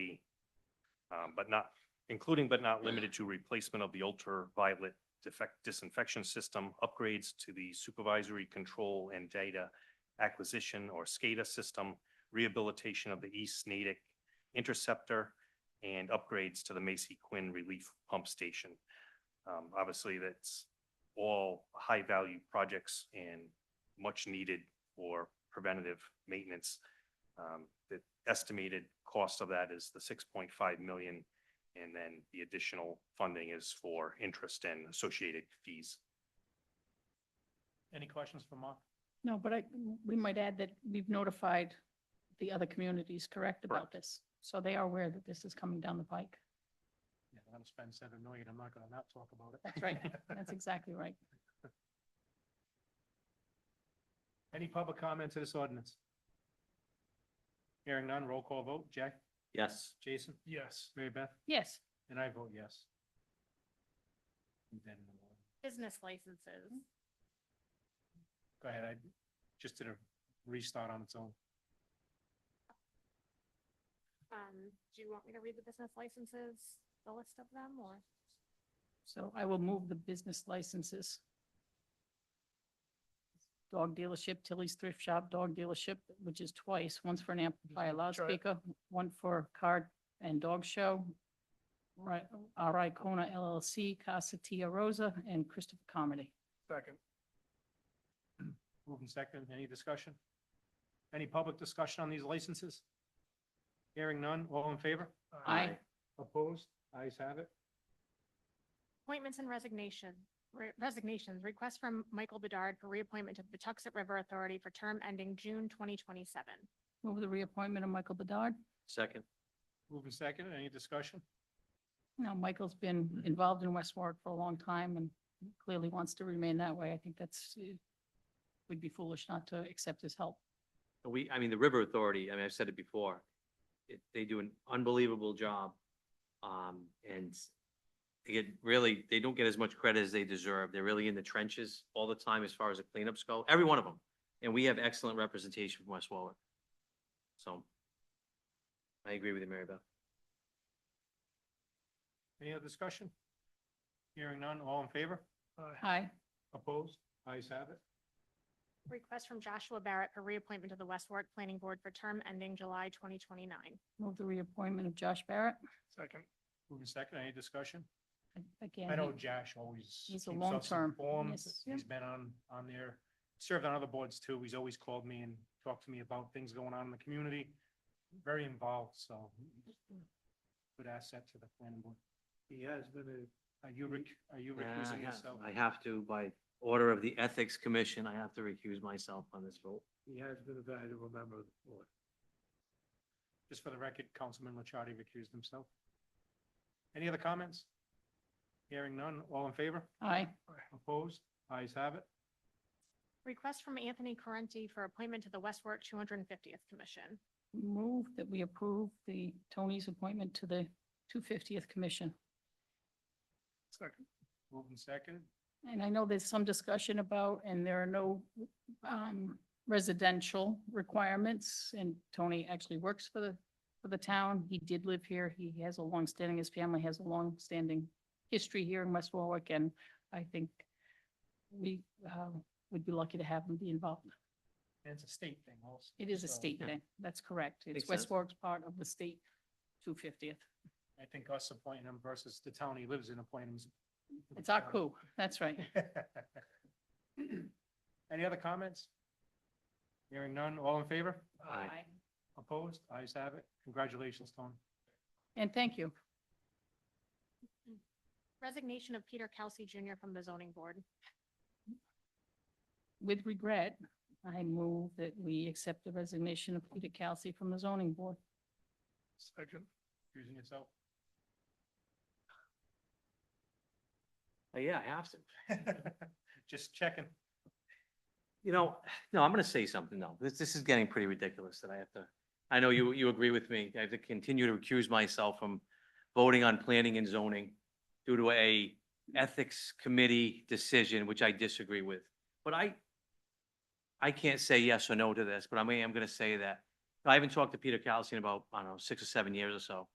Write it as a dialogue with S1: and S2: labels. S1: um, but not, including but not limited to replacement of the ultraviolet defect disinfection system, upgrades to the supervisory control and data acquisition or SCADA system, rehabilitation of the East Natick interceptor, and upgrades to the Macy Quinn Relief Pump Station. Um, obviously, that's all high-value projects and much needed for preventative maintenance. Um, the estimated cost of that is the six point five million. And then the additional funding is for interest and associated fees.
S2: Any questions for Mark?
S3: No, but I, we might add that we've notified the other communities, correct, about this? So they are aware that this is coming down the pike.
S2: Yeah, I'm gonna spend seven million, I'm not gonna not talk about it.
S3: That's right. That's exactly right.
S2: Any public comment to this ordinance? Hearing none, roll call vote, Jack,
S4: Yes.
S2: Jason? Yes. Mary Beth?
S3: Yes,
S2: And I vote yes. Then,
S5: Business licenses.
S2: Go ahead, I just did a restart on its own.
S5: Um, do you want me to read the business licenses, the list of them, or?
S3: so I will move the business licenses. Dog dealership, Tilly's Thrift Shop Dog Dealership, which is twice, once for an amplifier loudspeaker, one for card and dog show. Right, R.I. Kona LLC, Casa Tia Rosa, and Christopher Comedy.
S2: Second. Moving second, any discussion? Any public discussion on these licenses? Hearing none, all in favor?
S3: Aye. Aye.
S2: Opposed? Ayes have it.
S5: Appointments and resignation, re- resignations, request from Michael Bedard for reappointment to the Patuxent River Authority for term ending June twenty twenty-seven.
S3: Move the reappointment of Michael Bedard.
S4: Second.
S2: Moving second, any discussion?
S3: Now, Michael's been
S2: Mm-hmm.
S3: involved in West Warwick for a long time and clearly wants to remain that way. I think that's, uh, we'd be foolish not to accept his help.
S4: We, I mean, the River Authority, I mean, I've said it before, it, they do an unbelievable job. Um, and they get really, they don't get as much credit as they deserve. They're really in the trenches all the time as far as the cleanups go, every one of them. And we have excellent representation from West Warwick. So I agree with you, Mary Beth.
S2: Any other discussion? Hearing none, all in favor?
S3: Aye.
S2: Opposed? Ayes have it.
S5: Request from Joshua Barrett for reappointment to the West Warwick Planning Board for term ending July twenty twenty-nine.
S3: Move the reappointment of Josh Barrett.
S2: Second. Moving second, any discussion?
S3: Again,
S2: I know
S3: he-
S2: Josh always.
S3: He's a
S2: keeps us
S3: long-term,
S2: informed.
S3: yes.
S2: He's been on, on there, served on other boards too. He's always called me and talked to me about things going on in the community. Very involved, so good asset to the planning board. He has been a. Are you, rec- are you
S4: Yeah,
S2: recusing
S4: yeah.
S2: yourself?
S4: I have to, by order of the Ethics Commission, I have to recuse myself on this vote.
S2: He has been a valuable member of the board. Just for the record, Councilman Licciardi recused himself. Any other comments? Hearing none, all in favor?
S3: aye.
S2: Opposed? Ayes have it.
S5: Request from Anthony Correnti for appointment to the West Warwick two hundred and fiftieth Commission.
S3: Move that we approve the Tony's appointment to the 250th Commission.
S2: Second. Moving second.
S3: And I know there's some discussion about, and there are no um, residential requirements, and Tony actually works for the, for the town. He did live here. He has a longstanding, his family has a longstanding history here in West Warwick, and I think we uh, would be lucky to have him be involved.
S2: And it's a state thing also.
S3: It is a
S2: so
S3: state
S4: yeah.
S3: thing. That's correct. It's
S4: Makes
S3: West
S4: sense.
S3: Warwick's part of the state 250th.
S2: I think us appointing him versus the town he lives in appointing him. is-
S3: It's our coup. That's right.
S2: Any other comments? Hearing none, all in favor?
S4: Aye.
S2: Opposed? Ayes have it. Congratulations, Tony.
S3: And thank you.
S5: Resignation of Peter Kelsey Junior from the zoning board.
S3: With regret, I move that we accept the resignation of Peter Kelsey from the zoning board.
S2: Second. Excusing yourself.
S4: Uh, Yeah, I have to.
S2: Just checking.
S4: You know, no, I'm gonna say something though. This, this is getting pretty ridiculous that I have to, I know you, you agree with me. I have to continue to recuse myself from voting on planning and zoning due to a ethics committee decision, which I disagree with. But I, I can't say yes or no to this, but I mean, I'm gonna say that. I haven't talked to Peter Calcine about, I don't know, six or seven years or so.